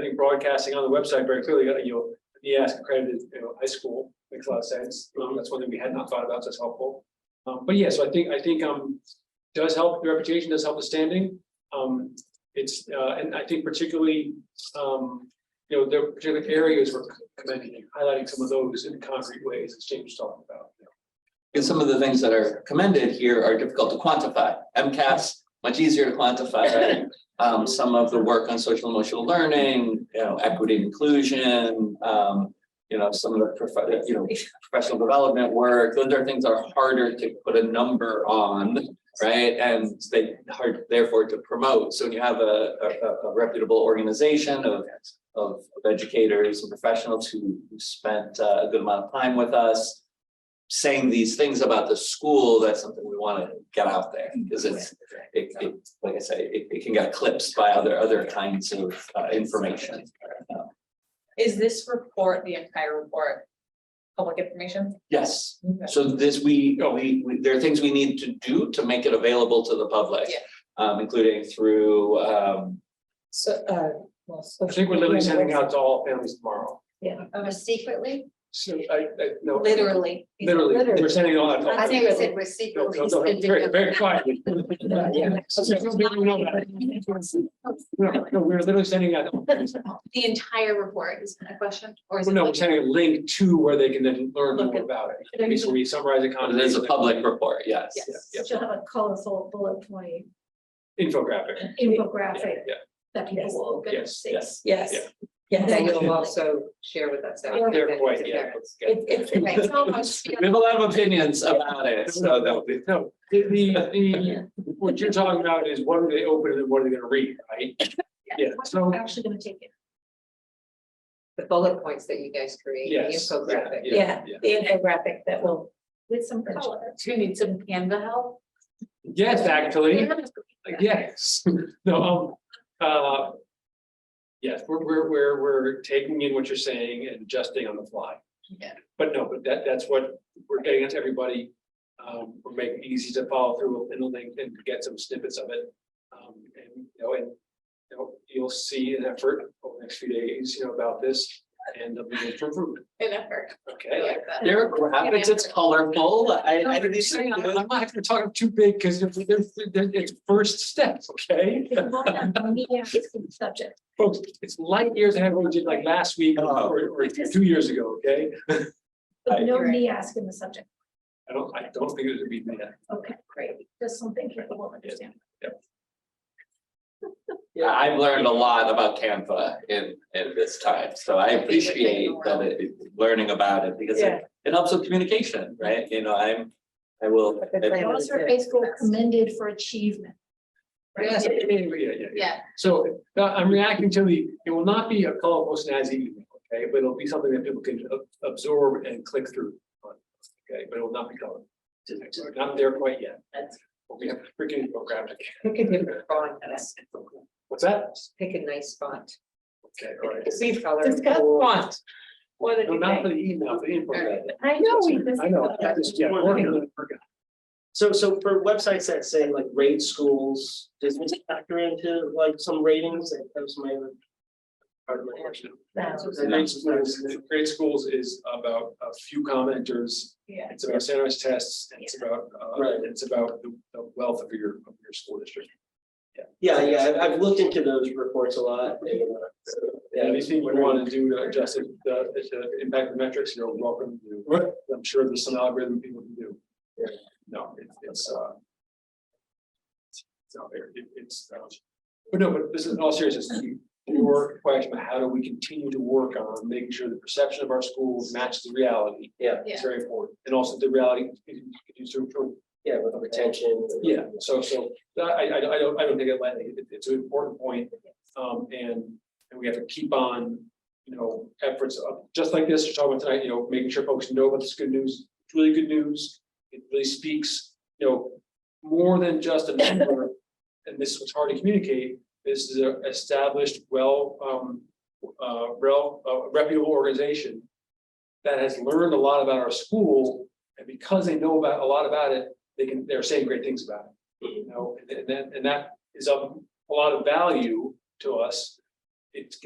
think broadcasting on the website very clearly, uh, you gotta, you know, the ask accredited, you know, high school, makes a lot of sense. Um, that's one thing we had not thought about, so it's helpful. Um, but yeah, so I think, I think, um, does help the reputation, does help the standing. Um, it's, uh, and I think particularly, um, you know, there are particular areas we're commending, and highlighting some of those in concrete ways, as James was talking about. Because some of the things that are commended here are difficult to quantify. MCAS, much easier to quantify. right? Um, some of the work on social emotional learning, you know, equity and inclusion, um, you know, some of the, prof- you know, professional development work, those are things that are harder to put a number on, right? And they hard therefore to promote. So when you have a, a- a reputable organization of, of of educators and professionals who who spent uh, a good amount of time with us, saying these things about the school, that's something we want to get out there because it's, it, it, like I say, it, it can get eclipsed by other, other kinds of uh, information. Is this report, the entire report, public information? Yes, so this, we, we, we- there are things we need to do to make it available to the public. Yeah. Um, including through, um, So, uh, well. so- I think we're literally sending out to all families tomorrow. Oh, secretly? So I, I, no. Literally. Literally, we're sending it all out. to all I think we said we're secretly. No, no, no, Very, very quietly. No, no, we're literally sending out, The entire report is a question, or is it? no, we're like- sending a link to where they can then learn more about it. Okay, So we summarize it. it is a public report, yes. yeah. Yes, she'll have a colorful bullet point Infographic. infographic Yeah, that people will open and Yes, see. yes. Yes. Yeah. Yes. That you'll also share with us. yeah. They're quite, yeah. It- it's- Right, it's almost- We have a lot of opinions about it, so that'll be. No, the, the, the, what you're talking about is what are they open and what are they gonna read, right? Yeah, so, We're Actually gonna take it. The bullet points that you guys create, the yes. infographic. Yeah, the infographic that will, With some color. Do you need some Canva help? Yes, actually. Uh, Yes, no, um, uh. Yes, we're, we're, we're, we're taking in what you're saying and adjusting on the fly. Yeah. But no, but that, that's what we're getting to everybody. Um, we're making it easy to follow through and link and get some snippets of it. Um, and, you know, and. You know, you'll see an effort over the next few days, you know, about this and there'll be room for improvement, An effort. okay? There are graphics, it's colorful, I, I didn't see I'm not gonna talk too big because they're, they're, it's first steps, okay? Media is the subject. Folks, it's light years ahead of what we did like last week or, Oh. or- or two years ago, okay? But no Right. me asking the subject. I don't, I don't think it would be that. Okay, great. Just something people will understand. Yeah, I've learned a lot about Canva in, in this time, so I appreciate that it, it- learning about it, because Yeah. it, it helps with communication, right? You know, I'm, I will. It's like- Girls are basically commended for achievement. Yeah, Right? yeah, yeah, yeah. Yeah, So uh, I'm reacting to the, it will not be a colorful snazzy email, okay, but it'll be something that people can ab- absorb and click through. on, Okay, but it will not be colorful. We're Not there quite yet. That's- But We have freaking oh, programmed. it. Pick a different font, that's- What's that? pick a nice font. Okay, all right. Leave color. discuss font. What did No, you not think? for the email, for the info. I know we. I know. I just- yeah, working on it, working So, so for websites that say like rate schools, does this factor into like some ratings? That was my other part of my question. That's So Grade rates- schools, grade schools is about a few commenters. Yeah. It's about standardized tests, and it's about, uh, Right. and it's about the the wealth of your, of your school district. Yeah, yeah, I've, I've looked into those reports a lot. and, uh, so, yeah, I was Anything you wondering- want to do to adjust it, uh, to impact the metrics, you're welcome to. do. I'm sure there's some algorithm people can do. No, it's, it's, uh. It's out there, It- it's, uh, but no, but this is in all seriousness, you- your question, about how do we continue to work on making sure the perception of our schools matches the reality? Yeah. It's very important, and also the reality continues to improve. Yeah, with retention. Yeah, so, so, I, I, I don't, I don't think it lightly, It- it's an important point, um, and, and we have to keep on, you know, efforts of, just like this, you're talking about tonight, you know, making sure folks know about this good news, it's really good news. It really speaks, you know, more than just a number, and this was hard to communicate, this is a established, well, um, uh, rel, uh, reputable organization that has learned a lot about our school, and because they know about, a lot about it, they can, they're saying great things about it. You know, and that, and that is of a lot of value to us. It's